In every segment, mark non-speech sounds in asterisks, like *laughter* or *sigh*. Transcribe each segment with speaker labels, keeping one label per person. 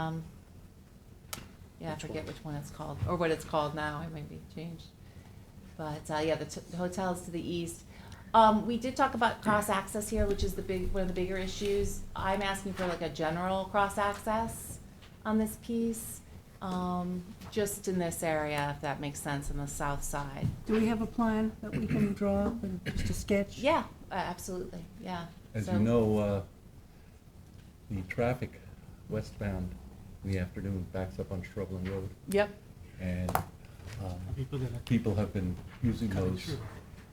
Speaker 1: Um, yeah, I
Speaker 2: Which
Speaker 1: forget
Speaker 2: one?
Speaker 1: which one it's called, or what it's called now, it might be changed. But, uh, yeah, the t- the hotels to the east. Um, we did talk about cross-access here, which is the big, one of the bigger issues. I'm asking for like a general cross-access on this piece, um, just in this area, if that makes sense, on the south side.
Speaker 3: Do we have a plan that we can draw up and just a sketch?
Speaker 1: Yeah, uh, absolutely, yeah.
Speaker 2: As
Speaker 1: So-
Speaker 2: you know, uh, the traffic westbound in the afternoon backs up on Shrubland Road,
Speaker 1: Yep,
Speaker 2: and um,
Speaker 4: People that are
Speaker 2: people have been using
Speaker 4: coming
Speaker 2: those,
Speaker 4: through.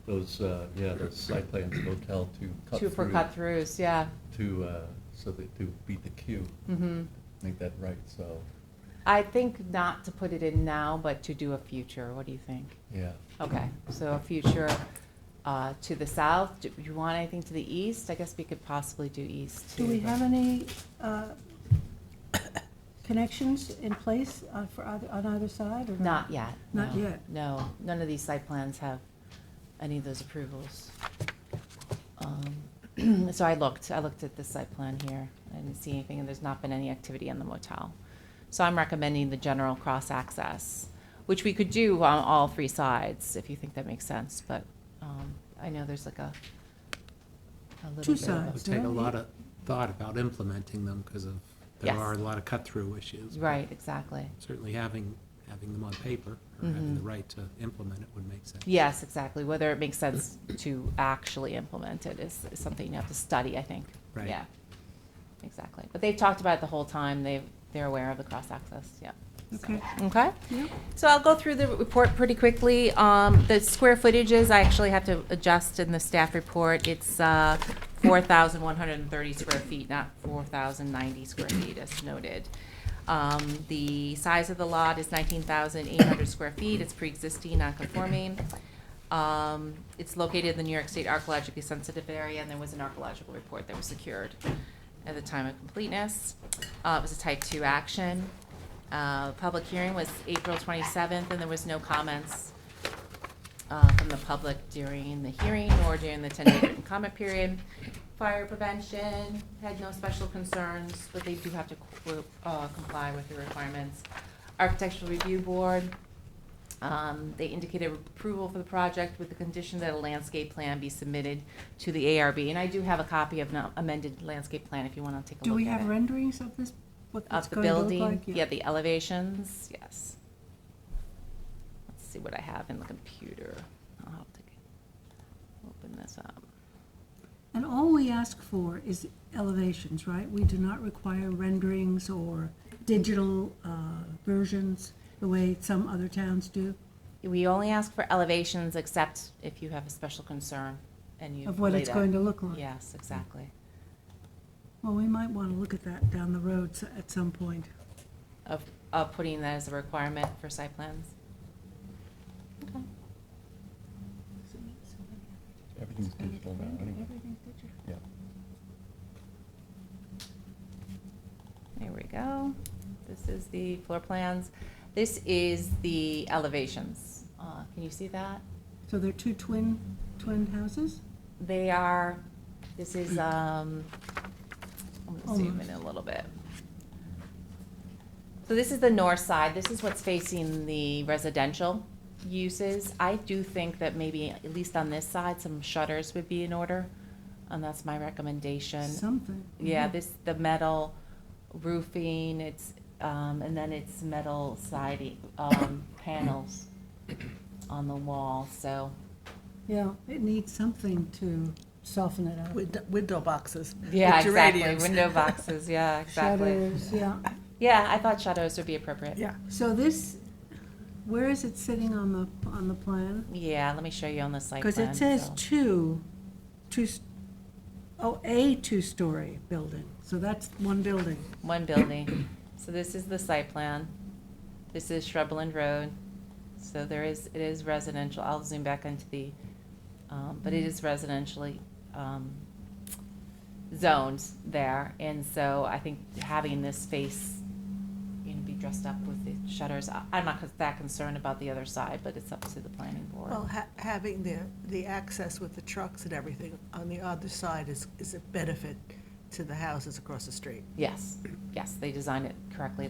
Speaker 2: those, uh, yeah, those site plans of hotel to cut
Speaker 1: two
Speaker 2: through.
Speaker 1: for cut-throughs, yeah,
Speaker 2: To, uh, so that, to beat the queue,
Speaker 1: mm-hmm.
Speaker 2: make that right, so,
Speaker 1: I think not to put it in now, but to do a future, what do you think?
Speaker 2: yeah.
Speaker 1: Okay, so a future uh, to the south, do you want anything to the east? I guess we could possibly do east.
Speaker 3: Do we
Speaker 1: too, but-
Speaker 3: have any uh, connections in place uh, for either, on either side or not?
Speaker 1: Not yet.
Speaker 3: Mm-hmm. Not
Speaker 1: no.
Speaker 3: yet.
Speaker 1: No, none of these site plans have any of those approvals. Um, *clears throat* So I looked, I looked at the site plan here, I didn't see anything, and there's not been any activity on the motel. So I'm recommending the general cross-access, which we could do on all three sides, if you think that makes sense, but um, I know there's like a, a little
Speaker 3: Two
Speaker 1: bit of a-
Speaker 3: sides.
Speaker 4: Would take a lot of thought about implementing them because of, there
Speaker 1: Yes.
Speaker 4: are a lot of cut-through issues. but
Speaker 1: Right, exactly.
Speaker 4: Certainly having, having them on paper or having the
Speaker 1: Mhm.
Speaker 4: right to implement it would make sense.
Speaker 1: Yes, exactly. Whether it makes sense to actually implement it is is something you have to study, I think.
Speaker 4: Right.
Speaker 1: Yeah, exactly. But they've talked about it the whole time. They, they're aware of the cross-access, yeah.
Speaker 3: Okay.
Speaker 1: Okay?
Speaker 3: Yep.
Speaker 1: So I'll go through the report pretty quickly. Um, the square footages, I actually have to adjust in the staff report. It's, uh, four thousand one hundred and thirty square feet, not four thousand ninety square feet as noted. Um, the size of the lot is nineteen thousand eight hundred square feet. It's pre-existing, non-conforming. Um, it's located in the New York State archaeologically sensitive area, and there was an archaeological report that was secured at the time of completeness. Uh, it was a type two action. Uh, public hearing was April twenty-seventh, and there was no comments uh, from the public during the hearing or during the ten-day written *coughs* comment period. Fire prevention had no special concerns, but they do have to qu- uh, comply with the requirements. Architectural Review Board, um, They indicated approval for the project with the condition that a landscape plan be submitted to the ARB. And I do have a copy of an amended landscape plan if you want to take a
Speaker 3: Do
Speaker 1: look
Speaker 3: we
Speaker 1: at
Speaker 3: have
Speaker 1: it.
Speaker 3: renderings of this, what it's
Speaker 1: Of the
Speaker 3: going to look
Speaker 1: building,
Speaker 3: like?
Speaker 1: yeah, the elevations, yes. Let's see what I have in the computer. I'll have to open this up.
Speaker 3: And all we ask for is elevations, right? We do not require renderings or digital uh, versions, the way some other towns do,
Speaker 1: We only ask for elevations except if you have a special concern and you.
Speaker 3: of what
Speaker 1: lay
Speaker 3: it's
Speaker 1: that-
Speaker 3: going to look like.
Speaker 1: Yes, exactly.
Speaker 3: Well, we might want to look at that down the road s- at some point.
Speaker 1: Of, of putting that as a requirement for site plans. Okay.
Speaker 2: Everything's digital now, anyway, yeah.
Speaker 1: There we go. This is the floor plans. This is the elevations. Uh, Can you see that?
Speaker 3: So they're two twin, twin houses?
Speaker 1: They are, this is, um, I'm gonna zoom in
Speaker 3: Almost.
Speaker 1: a little bit. So this is the north side. This is what's facing the residential uses. I do think that maybe, at least on this side, some shutters would be in order, and that's my recommendation.
Speaker 3: Something.
Speaker 1: Yeah, this, the metal roofing, it's, um, and then it's metal siding, um, panels on the wall, so,
Speaker 3: Yeah, it needs something to soften it up.
Speaker 5: Wid- Window boxes.
Speaker 1: yeah,
Speaker 5: with
Speaker 1: exactly,
Speaker 5: geraniums.
Speaker 1: window boxes, yeah, exactly.
Speaker 3: Shutters, yeah.
Speaker 1: Yeah, I thought shadows would be
Speaker 5: *laughs*
Speaker 1: appropriate.
Speaker 5: Yeah.
Speaker 3: So this, where is it sitting on the, on the plan?
Speaker 1: Yeah, let me show you on the site plan.
Speaker 3: Because it says
Speaker 1: so-
Speaker 3: two, two, s- oh, a two-story building, so that's one building.
Speaker 1: *clears throat* One building. So this is the site plan. This is Shrubland Road. So there is, it is residential. I'll zoom back into the, um, but it is residentially, um, zoned there. And so I think having this space, you know, be dressed up with the shutters, I- I'm not that concerned about the other side, but it's up to the planning board.
Speaker 5: Well, ha- having the, the access with the trucks and everything on the other side is, is a benefit to the houses across the street.
Speaker 1: Yes, yes, they designed it correctly